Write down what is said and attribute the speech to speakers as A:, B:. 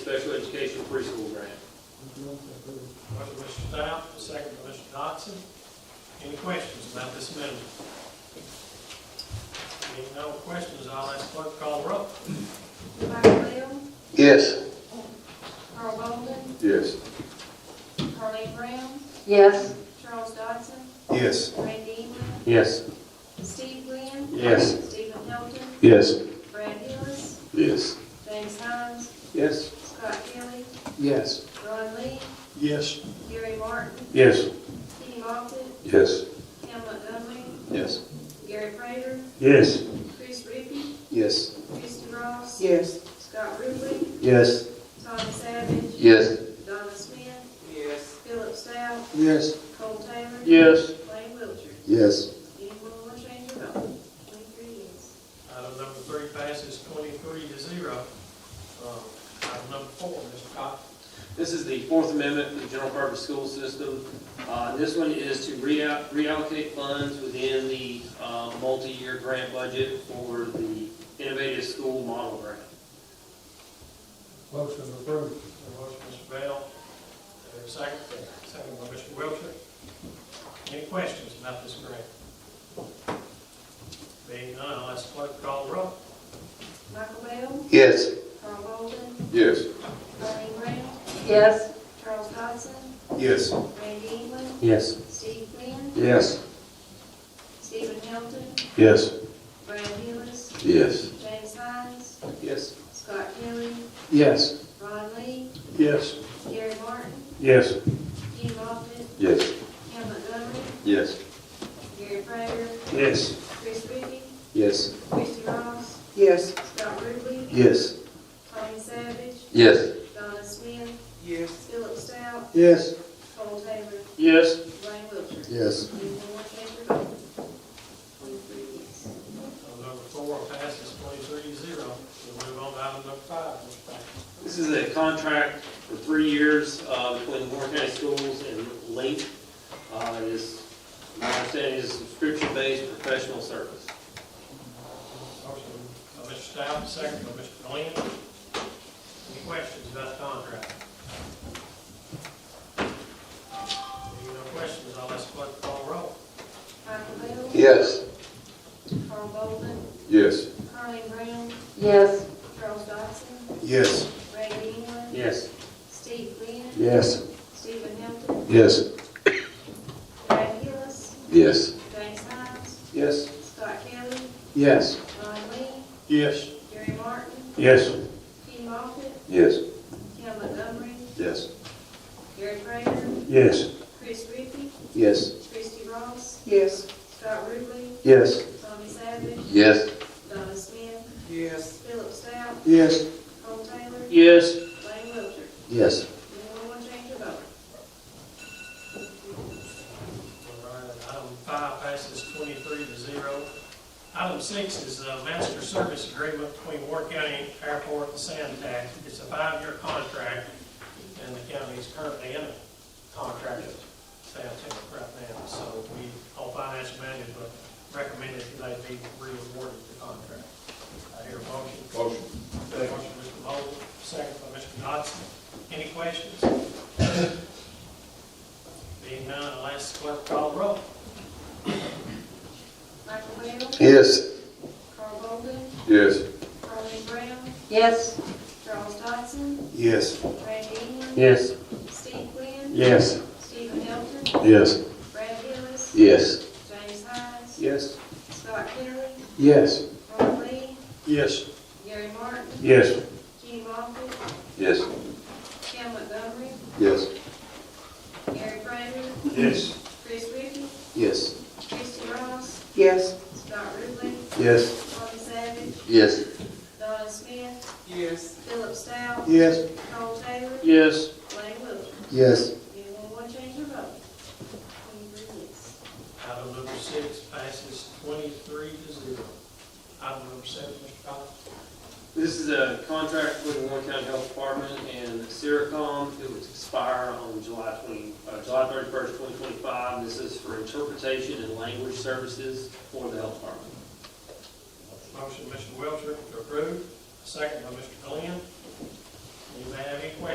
A: special education preschool grant.
B: Motion by Mr. Stout, second by Mr. Dodson. Any questions about this amendment? Being no questions, I'll ask clerk to call the roll.
C: Michael Bell,
D: Yes.
C: Carl Bolden,
D: Yes.
C: Carleen Brown,
E: yes,
C: Charles Dodson,
D: Yes.
C: Randy England,
D: Yes.
C: Steve Glenn,
D: Yes.
C: Stephen Hilton,
D: Yes.
C: Brad Hillis,
D: Yes.
C: James Hines,
D: Yes.
C: Scott Kelly,
D: Yes.
C: Ron Lee,
D: Yes.
C: Gary Martin,
D: Yes.
C: Kenny Moffitt,
D: Yes.
C: Cam Montgomery,
D: Yes.
C: Gary Prater,
D: Yes.
C: Chris Rippey,
D: Yes.
C: Kristy Ross,
E: yes,
C: Scott Ruble,
D: Yes.
C: Tommy Savage,
D: Yes.
C: Donna Smith, Philip Stout,
D: Yes.
C: Cole Taylor,
D: Yes.
C: Lane Wiltshire.
D: Yes.
C: Anyone want to change their vote? Twenty-three yes.
B: Item number three passes twenty-three to zero. Um, Item number four, Mr. Cox.
A: This is the Fourth Amendment to the General Purpose School System. Uh, This one is to rea- reallocate funds within the uh, multi-year grant budget for the Innovative School Model Grant.
F: Motion approved.
B: A Motion, Mr. Bell. There a second? Second by Mr. Wiltshire. Any questions about this grant? Being none, I'll ask clerk to call the roll.
C: Michael Bell,
D: Yes.
C: Carl Bolden,
D: Yes.
C: Colleen Brown,
E: yes,
C: Charles Dodson,
D: Yes.
C: Randy England,
D: Yes.
C: Steve Glenn,
D: Yes.
C: Stephen Hilton,
D: Yes.
C: Brad Hillis,
D: Yes.
C: James Hines,
D: Yes.
C: Scott Kelly,
D: Yes.
C: Ron Lee,
D: Yes.
C: Gary Martin,
D: Yes.
C: Kenny Moffitt,
D: Yes.
C: Cam Montgomery,
D: Yes.
C: Gary Prater,
D: Yes.
C: Chris Reapy,
D: Yes.
C: Kristy Ross,
E: yes,
C: Scott Ruble,
D: Yes.
C: Tommy Savage,
D: Yes.
C: Donna Smith, Philip Stout,
D: Yes.
C: Cole Taylor,
A: Yes.
C: Lane Wiltshire.
D: Yes.
C: Anyone want to change their vote? Twenty-three yes.
B: Item number four passes twenty-three to zero. We'll move on to item number five, Mr. Banks.
A: This is a contract for three years uh, between Warren County Schools and Link. Uh, It is, my understanding is subscription-based professional service.
B: Motion by Mr. Stout, second by Mr. Glenn. Any questions about the contract? Being no questions, I'll ask clerk to call the roll.
C: Michael Bell.
D: Yes.
C: Carl Bolden,
D: Yes.
C: Carleen Brown,
E: yes,
C: Charles Dodson,
D: Yes.
C: Randy England,
A: Yes.
C: Steve Glenn,
D: Yes.
C: Stephen Hilton,
D: Yes.
C: Brad Hillis,
D: Yes.
C: James Hines,
D: Yes.
C: Scott Kelly,
D: Yes.
C: Ron Lee,
D: Yes.
C: Gary Martin,
D: Yes.
C: Kenny Moffitt,
D: Yes.
C: Cam Montgomery,
D: Yes.
C: Gary Prater,
D: Yes.
C: Chris Rippey,
D: Yes.
C: Kristy Ross,
E: yes,
C: Scott Ruble,
D: Yes.
C: Tommy Savage,
D: Yes.
C: Donna Smith,
F: Yes.
C: Philip Stout,
D: Yes.
C: Cole Taylor,
A: Yes.
C: Lane Wiltshire.
D: Yes.
C: Anyone want to change their vote?
B: All right, Item five passes twenty-three to zero. Item six is a master service agreement between Warren County Airport and Sandtac. It's a five-year contract, and the county is currently in a contract with Sandtac right now. So we, all finance management recommended that they be re-awarded the contract. I hear a motion.
D: Motion.
B: Motion, Mr. Bowles, second by Mr. Dodson. Any questions? Being none, I'll ask the clerk to call the roll.
C: Michael Bell,
D: Yes.
C: Carl Bolden,
D: Yes.
C: Carleen Brown,
E: yes,
C: Charles Dodson,
D: Yes.
C: Randy England,
D: Yes.
C: Steve Glenn,
D: Yes.
C: Stephen Hilton,
D: Yes.
C: Brad Hillis,
D: Yes.
C: James Hines,
D: Yes.
C: Scott Kelly,
D: Yes.
C: Ron Lee,
D: Yes.
C: Gary Martin,
D: Yes.
C: Kenny Moffitt,
D: Yes.
C: Cam Montgomery,
D: Yes.
C: Gary Prater,
D: Yes.
C: Chris Rippey,
D: Yes.
C: Kristy Ross,
E: yes,
C: Scott Ruble,
D: Yes.
C: Tommy Savage,
D: Yes.
C: Donna Smith,
F: Yes.
C: Philip Stout,
D: Yes.
C: Cole Taylor,
A: Yes.
C: Lane Wiltshire.
D: Yes.
C: Anyone want to change their vote? Twenty-three yes.
B: Item number six passes twenty-three to zero. Item number seven, Mr. Collins.
A: This is a contract with the Warren County Health Department and Seracom. It would expire on July 20, uh, July 31st, 2025. This is for interpretation and language services for the health department.
B: Motion, Mr. Wiltshire, to approve, second by Mr. Glenn. You may have any questions